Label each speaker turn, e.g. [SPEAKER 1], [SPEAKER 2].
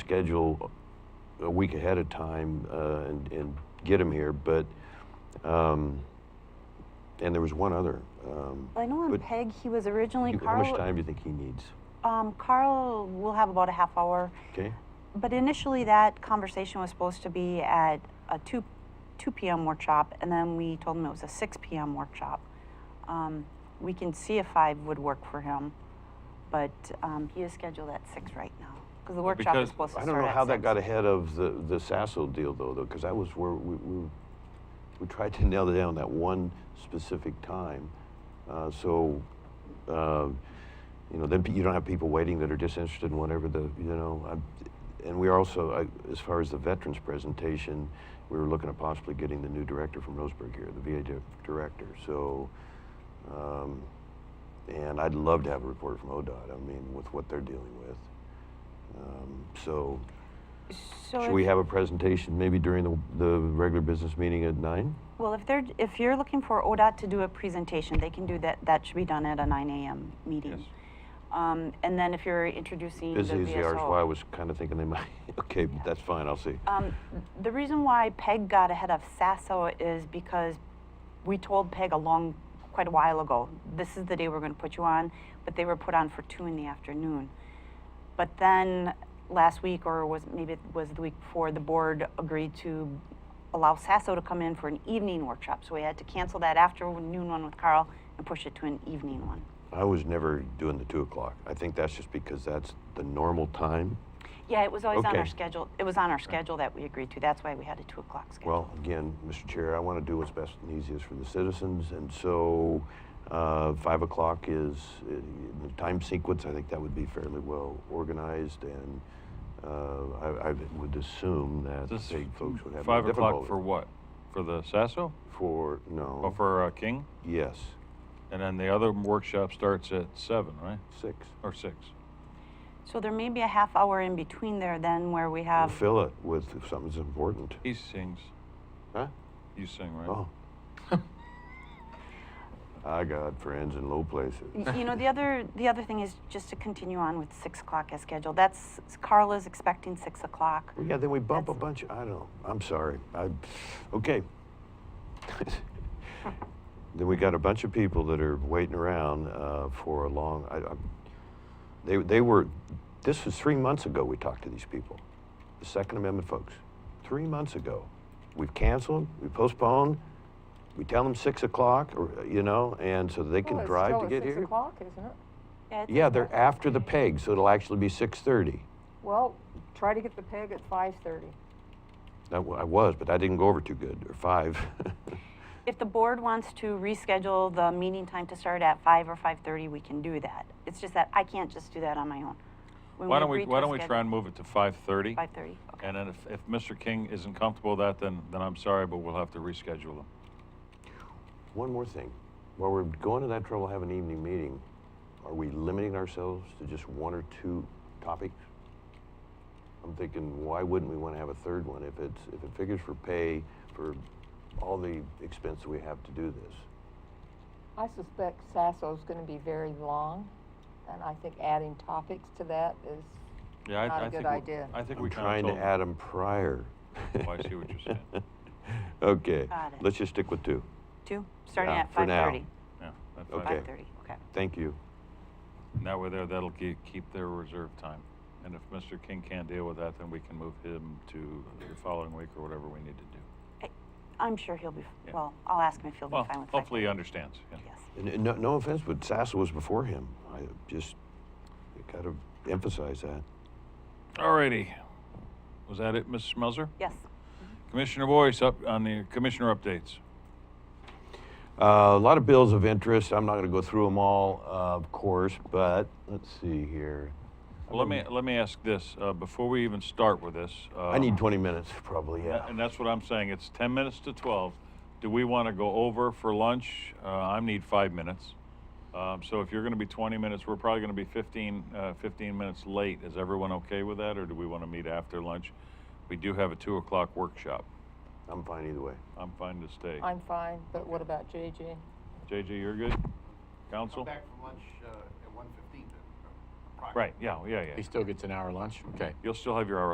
[SPEAKER 1] schedule a week ahead of time uh, and, and get them here, but, um, and there was one other. um,
[SPEAKER 2] I know on
[SPEAKER 1] but
[SPEAKER 2] Peg, he was originally
[SPEAKER 1] you- How
[SPEAKER 2] Carl.
[SPEAKER 1] much time do you think he needs?
[SPEAKER 2] Um, Carl will have about a half hour,
[SPEAKER 1] Okay?
[SPEAKER 2] but initially that conversation was supposed to be at a two, two p.m. workshop, and then we told him it was a six p.m. workshop. Um, we can see if five would work for him, but um, he is scheduled at six right now because the workshop
[SPEAKER 3] because-
[SPEAKER 2] is supposed to
[SPEAKER 1] I
[SPEAKER 2] start
[SPEAKER 1] don't know
[SPEAKER 2] at
[SPEAKER 1] how that
[SPEAKER 2] six.
[SPEAKER 1] got ahead of the, the Sasso deal though, though, because that was where we, we, we tried to nail down that one specific time. Uh, so, uh, you know, then pe- you don't have people waiting that are just interested in whatever the, you know, I'm, and we also, I, as far as the veterans presentation, we were looking at possibly getting the new director from Roseburg here, the VA di- director. So, um, and I'd love to have a report from ODOT. I mean, with what they're dealing with. Um, so,
[SPEAKER 2] So
[SPEAKER 1] should
[SPEAKER 2] if-
[SPEAKER 1] we have a presentation maybe during the, the regular business meeting at nine?
[SPEAKER 2] Well, if they're, if you're looking for ODOT to do a presentation, they can do that, that should be done at a nine AM meeting.
[SPEAKER 3] Yes.
[SPEAKER 2] Um, and then if you're introducing the
[SPEAKER 1] Busy as they are, is
[SPEAKER 2] VSO.
[SPEAKER 1] why I was kind of thinking they might, okay, that's fine, I'll see.
[SPEAKER 2] Um, the reason why Peg got ahead of Sasso is because we told Peg a long, quite a while ago, this is the day we're gonna put you on, but they were put on for two in the afternoon. But then last week, or was, maybe it was the week before, the board agreed to allow Sasso to come in for an evening workshop. So we had to cancel that afternoon one with Carl and push it to an evening one.
[SPEAKER 1] I was never doing the two o'clock. I think that's just because that's the normal time.
[SPEAKER 2] Yeah, it was always on our
[SPEAKER 1] Okay.
[SPEAKER 2] schedule, it was on our schedule that we agreed to. That's why we had a two o'clock schedule.
[SPEAKER 1] Well, again, Mr. Chair, I want to do what's best and easiest for the citizens, and so, uh, five o'clock is, uh, the time sequence, I think that would be fairly well organized, and, uh, I, I would assume that
[SPEAKER 3] This
[SPEAKER 1] the folks would have no
[SPEAKER 3] Five o'clock
[SPEAKER 1] difficulty. Hmm?
[SPEAKER 3] for what? For the Sasso?
[SPEAKER 1] For, no.
[SPEAKER 3] Or for uh, King?
[SPEAKER 1] Yes,
[SPEAKER 3] And then the other workshop starts at seven, right?
[SPEAKER 1] six.
[SPEAKER 3] Or six?
[SPEAKER 2] So there may be a half hour in between there then where we
[SPEAKER 1] We'll
[SPEAKER 2] have,
[SPEAKER 1] fill it with if something's important.
[SPEAKER 3] He sings.
[SPEAKER 1] Huh?
[SPEAKER 3] You sing, right?
[SPEAKER 1] Oh. I got friends in low places.
[SPEAKER 2] Y- you know, the other, the other thing is just to continue on with six o'clock as scheduled. That's, Carl is expecting six o'clock.
[SPEAKER 1] Well, yeah, then we bump a
[SPEAKER 2] That's-
[SPEAKER 1] bunch. I don't. I'm sorry. I. Okay. then we got a bunch of people that are waiting around uh, for a long. I, I, they they were. This was three months ago. We talked to these people, the Second Amendment folks. Three months ago, we've canceled. We postponed. We tell them six o'clock, or uh, you know, and so they can
[SPEAKER 4] Well, it's
[SPEAKER 1] drive
[SPEAKER 4] still
[SPEAKER 1] to
[SPEAKER 4] at
[SPEAKER 1] get
[SPEAKER 4] Six
[SPEAKER 1] here.
[SPEAKER 4] o'clock, isn't it?
[SPEAKER 2] Yeah, it's-
[SPEAKER 1] Yeah, they're after the peg, so it'll actually be six thirty.
[SPEAKER 4] Well, try to get the peg at five thirty.
[SPEAKER 1] I was, but I didn't go over too good, or five.
[SPEAKER 2] If the board wants to reschedule the meeting time to start at five or five-thirty, we can do that. It's just that I can't just do that on my own. When
[SPEAKER 3] Why don't we,
[SPEAKER 2] agree to
[SPEAKER 3] why
[SPEAKER 2] a
[SPEAKER 3] don't we try and move it to five thirty?
[SPEAKER 2] schedule- Five-thirty, okay.
[SPEAKER 3] And then if, if Mr. King isn't comfortable with that, then, then I'm sorry, but we'll have to reschedule him.
[SPEAKER 1] One more thing. While we're going to that trouble, have an evening meeting, are we limiting ourselves to just one or two topics? I'm thinking, why wouldn't we want to have a third one if it's, if it figures for pay, for all the expense that we have to do this?
[SPEAKER 4] I suspect Sasso's gonna be very long, and I think adding topics to that is,
[SPEAKER 3] Yeah, I,
[SPEAKER 4] Not a
[SPEAKER 3] I
[SPEAKER 4] good
[SPEAKER 3] think, we-
[SPEAKER 4] idea.
[SPEAKER 3] I think
[SPEAKER 1] I'm
[SPEAKER 3] we
[SPEAKER 1] trying
[SPEAKER 3] kind
[SPEAKER 1] to
[SPEAKER 3] of told,
[SPEAKER 1] add them prior.
[SPEAKER 3] Oh, I see what you're saying.
[SPEAKER 1] Okay,
[SPEAKER 2] Got it.
[SPEAKER 1] let's just stick with two.
[SPEAKER 2] Two, starting
[SPEAKER 1] Yeah,
[SPEAKER 2] at
[SPEAKER 1] for now.
[SPEAKER 2] five-thirty.
[SPEAKER 3] yeah. at
[SPEAKER 1] Okay.
[SPEAKER 3] 5:30.
[SPEAKER 2] Five-thirty, okay.
[SPEAKER 1] Thank you.
[SPEAKER 3] And that way there, that'll keep, keep their reserve time. And if Mr. King can't deal with that, then we can move him to the following week or whatever we need to do.
[SPEAKER 2] I'm sure he'll be,
[SPEAKER 3] Yeah.
[SPEAKER 2] well, I'll ask him if he'll be
[SPEAKER 3] Well,
[SPEAKER 2] fine with five.
[SPEAKER 3] hopefully he understands, yeah.
[SPEAKER 2] Yes.
[SPEAKER 1] And- and no, no offense, but Sasso was before him. I just, got to emphasize that.
[SPEAKER 3] Alrighty. Was that it, Mrs. Melzer?
[SPEAKER 2] Yes.
[SPEAKER 3] Commissioner Boyce, up on the commissioner updates.
[SPEAKER 1] Uh, a lot of bills of interest. I'm not going to go through them all, uh, of course, but let's see here.
[SPEAKER 3] Well, let me, let me ask this, uh, before we even start with this. uh,
[SPEAKER 1] I need 20 minutes, probably, yeah.
[SPEAKER 3] And that's what I'm saying, it's ten minutes to twelve. Do we want to go over for lunch? Uh, I need five minutes. Um, so if you're going to be twenty minutes, we're probably going to be 15, uh, 15 minutes late. Is everyone okay with that, or do we want to meet after lunch? We do have a two o'clock workshop.
[SPEAKER 1] I'm fine either way.
[SPEAKER 3] I'm fine to stay.
[SPEAKER 4] I'm fine, but what about JJ?
[SPEAKER 3] JJ, you're good? Council?
[SPEAKER 5] Back from lunch uh, at 1:15 then.
[SPEAKER 3] Right, yeah, yeah, yeah.
[SPEAKER 6] He still gets an hour lunch? Okay.
[SPEAKER 3] You'll still have your hour